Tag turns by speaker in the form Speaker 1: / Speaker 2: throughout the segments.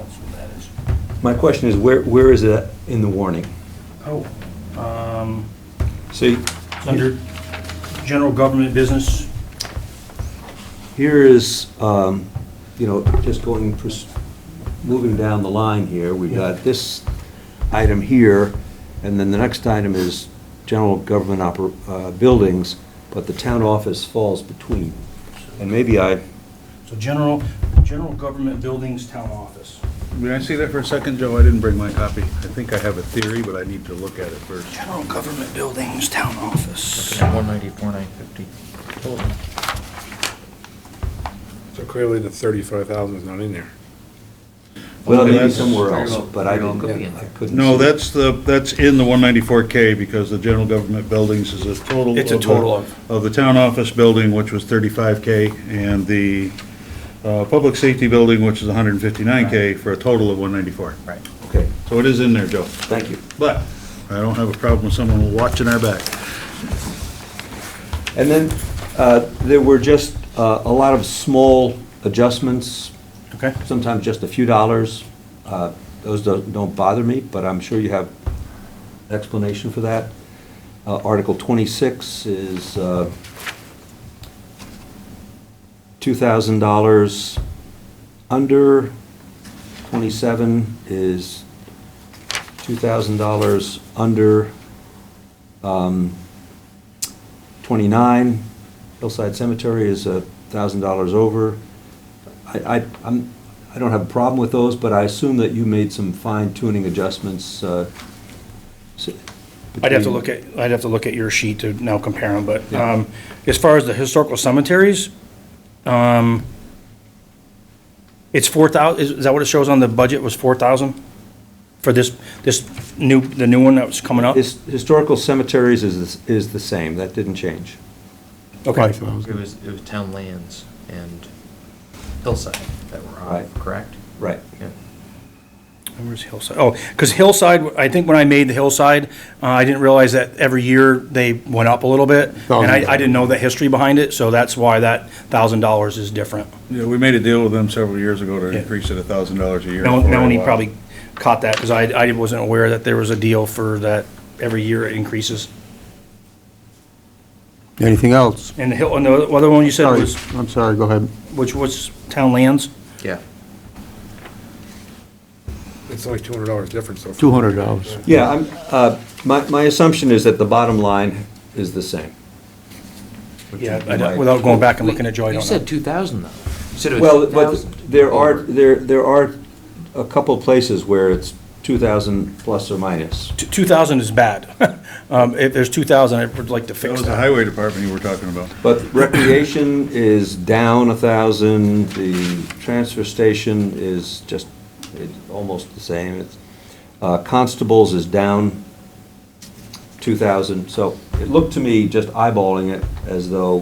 Speaker 1: that is.
Speaker 2: My question is, where, where is it in the warning?
Speaker 1: Oh, um,
Speaker 2: See,
Speaker 1: it's under general government business.
Speaker 2: here is, um, you know, just going, pers- moving down the line here, we
Speaker 1: Yeah.
Speaker 2: got this item here, and then the next item is general government oper, uh, buildings, but the town office falls between. And maybe I,
Speaker 1: So general, general government buildings, town office.
Speaker 3: May I see that for a second, Joe? I didn't bring my copy. I think I have a theory, but I need to look at it first.
Speaker 1: General government buildings, town office.
Speaker 4: Looking at 194, 950 total.
Speaker 3: So clearly the thirty-five thousand is not in there.
Speaker 2: well,
Speaker 3: Okay,
Speaker 2: maybe
Speaker 3: that's-
Speaker 2: somewhere else,
Speaker 4: Very well-
Speaker 2: but I
Speaker 4: very well
Speaker 2: didn't,
Speaker 4: could be in
Speaker 2: I
Speaker 4: there.
Speaker 2: couldn't.
Speaker 3: No,
Speaker 2: see.
Speaker 3: that's the, that's in the one ninety-four K because the general government buildings is a total.
Speaker 1: It's a
Speaker 3: the-
Speaker 1: total of.
Speaker 3: Of the town office building, which was thirty-five K, and the, uh, public safety building, which is hundred and fifty-nine K, for a total of one ninety-four.
Speaker 4: Right.
Speaker 2: Okay,
Speaker 3: So it is in there, Joe.
Speaker 2: thank you.
Speaker 3: But I don't have a problem with someone watching our back.
Speaker 2: And then, uh, there were just uh, a lot of small adjustments,
Speaker 1: Okay.
Speaker 2: sometimes just a few dollars. Uh, Those don't don't bother me, but I'm sure you have explanation for that. Uh, Article 26 is uh, $2,000 under, 27 is $2,000 under, um, 29 Hillside Cemetery is $1,000 over. I, I, I'm, I don't have a problem with those, but I assume that you made some fine tuning adjustments. uh, s-
Speaker 1: I'd have to
Speaker 2: between-
Speaker 1: look at, I'd have to look at your sheet to now compare them, but
Speaker 2: Yeah.
Speaker 1: um, as far as the historical cemeteries, um, it's 4,000, is is that what it shows on the budget, was 4,000? For this, this new, the new one that was coming up?
Speaker 2: His- Historical cemeteries is, is the same, that didn't change.
Speaker 1: Okay,
Speaker 4: It was, it was town lands and hillside that were
Speaker 2: Right.
Speaker 4: off, correct?
Speaker 2: Right.
Speaker 4: Yeah.
Speaker 1: where's Hillside? Oh, because Hillside, I think when I made the Hillside, uh, I didn't realize that every year they went up a little bit, and I I didn't know the history behind it, so that's why that $1,000 is different.
Speaker 3: Yeah, we made a deal with them several years ago to
Speaker 1: Yeah.
Speaker 3: increase it a thousand dollars a year.
Speaker 1: Mel-
Speaker 3: for uh, a
Speaker 1: Melanie
Speaker 3: while.
Speaker 1: probably caught that, because I, I wasn't aware that there was a deal for that every year it increases.
Speaker 5: Anything else?
Speaker 1: And the hill, and the other one you said
Speaker 5: Sorry,
Speaker 1: was,
Speaker 5: I'm sorry, go ahead.
Speaker 1: which was town lands?
Speaker 4: Yeah.
Speaker 6: It's only two hundred dollars difference though.
Speaker 5: $200.
Speaker 2: Yeah, I'm, uh, my, my assumption is that the bottom line is the same.
Speaker 1: Yeah, I don't- without going back and looking at Joy, I
Speaker 4: You
Speaker 1: don't know.
Speaker 4: said 2,000 though. You said it
Speaker 2: Well,
Speaker 4: was
Speaker 2: but
Speaker 4: 2,000.
Speaker 2: there are,
Speaker 4: over.
Speaker 2: there, there are a couple places where it's 2,000 plus or minus.
Speaker 1: Two- 2,000 is bad. Um, If there's 2,000, I would like to
Speaker 3: That
Speaker 1: fix
Speaker 3: was the
Speaker 1: that.
Speaker 3: highway department you were talking about.
Speaker 2: But recreation is down a thousand, the transfer station is just, it's almost the same. It's, uh, Constables is down two thousand, so it looked to me, just eyeballing it, as though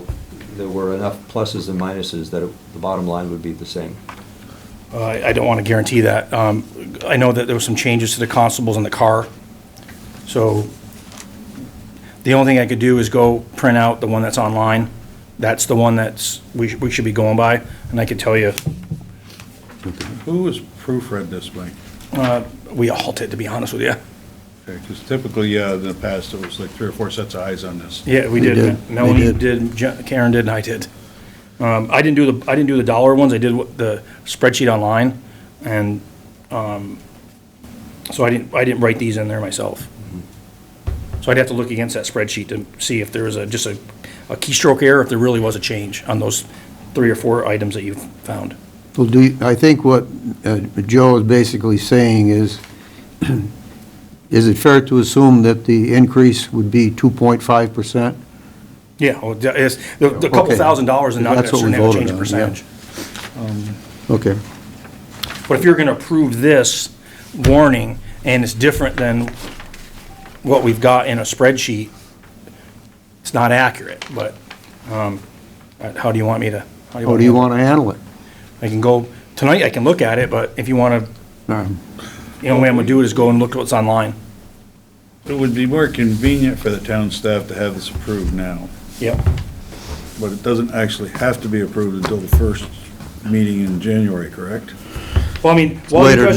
Speaker 2: there were enough pluses and minuses that it- the bottom line would be the same.
Speaker 1: Uh, I I don't want to guarantee that. Um, I know that there were some changes to the constables in the car, so the only thing I could do is go print out the one that's online. That's the one that's, we sh- we should be going by, and I could tell you
Speaker 3: Who has proofread this, Mike?
Speaker 1: we all did, to be honest with you.
Speaker 3: Because typically, uh, in the past, it was like three or four sets of eyes on this.
Speaker 1: Yeah, we
Speaker 5: We
Speaker 1: did.
Speaker 5: did. We
Speaker 1: Melanie
Speaker 5: did.
Speaker 1: did, Je- Karen did, and I did. Um, I didn't do the, I didn't do the dollar ones, I did what- the spreadsheet online, and, um, so I didn't, I didn't write these in there myself. So I'd have to look against that spreadsheet to see if there was a, just a a keystroke error, if there really was a change on those three or four items that you found.
Speaker 5: Well, do, you- I think what uh, Joe is basically saying is, is it fair to assume that the increase would be 2.5%?
Speaker 1: Yeah, well, the- it's- the the couple
Speaker 5: Okay.
Speaker 1: thousand dollars and not
Speaker 5: That's what we
Speaker 1: necessarily have a
Speaker 5: voted
Speaker 1: change in
Speaker 5: on, yeah.
Speaker 1: percentage.
Speaker 5: Okay.
Speaker 1: But if you're going to approve this warning, and it's different than what we've got in a spreadsheet, it's not accurate, but um, uh, how do you want me to?
Speaker 5: How Oh, do you want to handle it?
Speaker 1: I can go, tonight I can look at it, but if you want to,
Speaker 5: Um,
Speaker 1: the only way I'm going to do it is go and look at what's online.
Speaker 3: It would be more convenient for the town staff to have this approved now,
Speaker 1: Yep.
Speaker 3: but it doesn't actually have to be approved until the first meeting in January, correct?
Speaker 1: Well, I mean, while you
Speaker 5: later
Speaker 1: guys